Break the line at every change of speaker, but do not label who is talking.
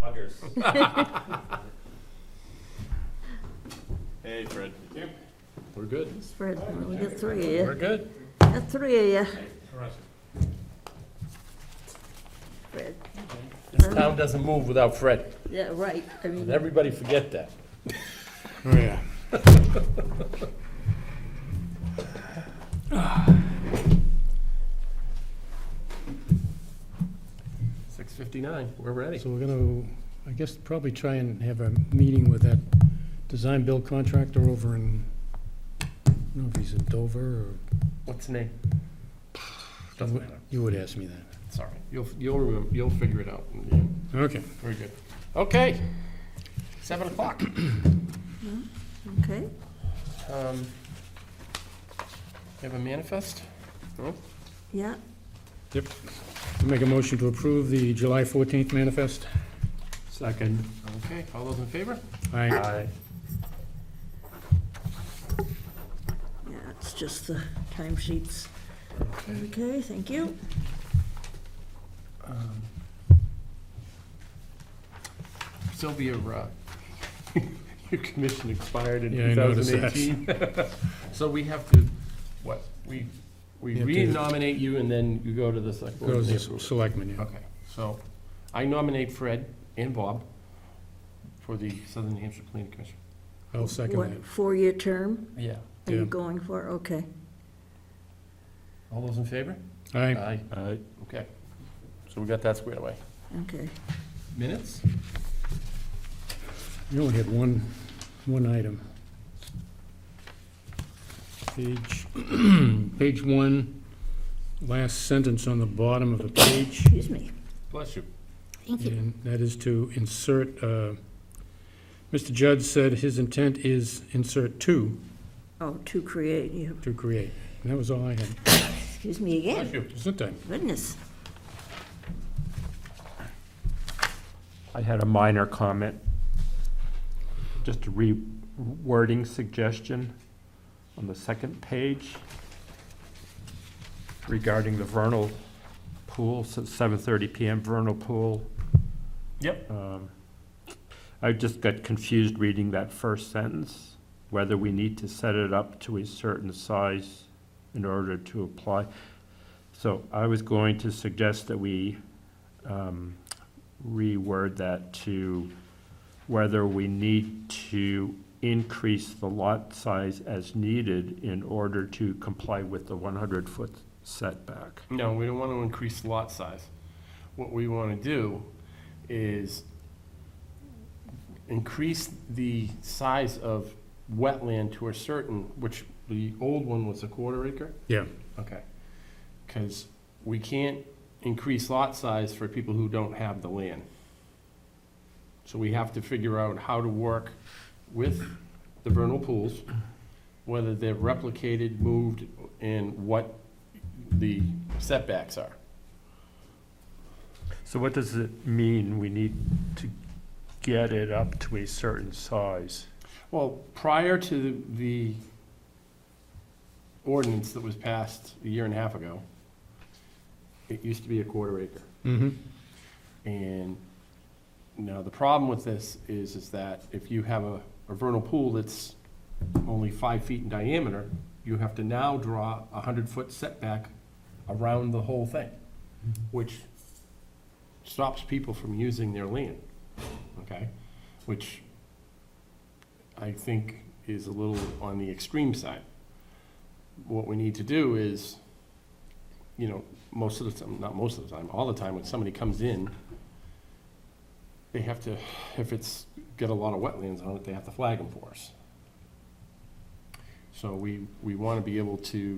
Rogers.
Hey, Fred.
We're good.
Fred, we got three of
We're
you,
good.
got three of you, Fred.
This town doesn't move without Fred.
Yeah, right, I mean,
And everybody forget that.
Oh, yeah.
Six fifty-nine, we're ready.
So we're gonna, I guess, probably try and have a meeting with that design-build contractor over in, I don't know if he's in Dover or,
What's the name? Doesn't matter,
you would ask me that.
sorry. You'll, you'll remember, you'll figure it out.
Okay.
Very good. Okay, seven o'clock.
okay,
Um, You have a manifest? No?
yeah,
Yep. Make a motion to approve the July 14th manifest.
Second. Okay, all those in favor?
Aye.
yeah, it's just the timesheets. Okay, thank you.
Um, Sylvia, uh, your commission expired in
Yeah, I noticed that.
2018. So we have to, what, we, we
You have to-
re-nominate you and then you go to the select board. and
Goes
they
to
approve it.
selectmen, yeah.
Okay, so I nominate Fred and Bob for the Southern New Hampshire Planning Commission.
I'll second that.
What, four-year term
Yeah.
are you
Yeah.
going for? Okay,
All those in favor?
Aye.
Aye. Okay, so we got that squared away.
okay,
Minutes?
You only had one, one item. Page, page one, last sentence on the bottom of the page.
excuse me,
Bless you.
thank you.
And that is to insert, uh, Mr. Judd said his intent is insert two
Oh, to create, you,
to create. And that was all I had.
excuse me again,
Bless you.
Sometimes.
goodness,
I had a minor comment, just a rewording suggestion on the second page regarding the vernal pool, so seven thirty PM vernal pool.
Yep.
Um, I just got confused reading that first sentence, whether we need to set it up to a certain size in order to apply. So I was going to suggest that we um, reword that to whether we need to increase the lot size as needed in order to comply with the 100-foot setback.
No, we don't want to increase lot size. What we want to do is increase the size of wetland to a certain, which the old one was a quarter acre?
Yeah.
Okay. Because we can't increase lot size for people who don't have the land. So we have to figure out how to work with the vernal pools, whether they're replicated, moved, and what the setbacks are.
So what does it mean, we need to get it up to a certain size?
Well, prior to the ordinance that was passed a year and a half ago, it used to be a quarter acre.
Mm-hmm.
And now the problem with this is, is that if you have a, a vernal pool that's only five feet in diameter, you have to now draw a hundred-foot setback around the whole thing, which stops people from using their land, okay? Which I think is a little on the extreme side. What we need to do is, you know, most of the time, not most of the time, all the time, when somebody comes in, they have to, if it's got a lot of wetlands on it, they have to flag them for us. So we, we want to be able to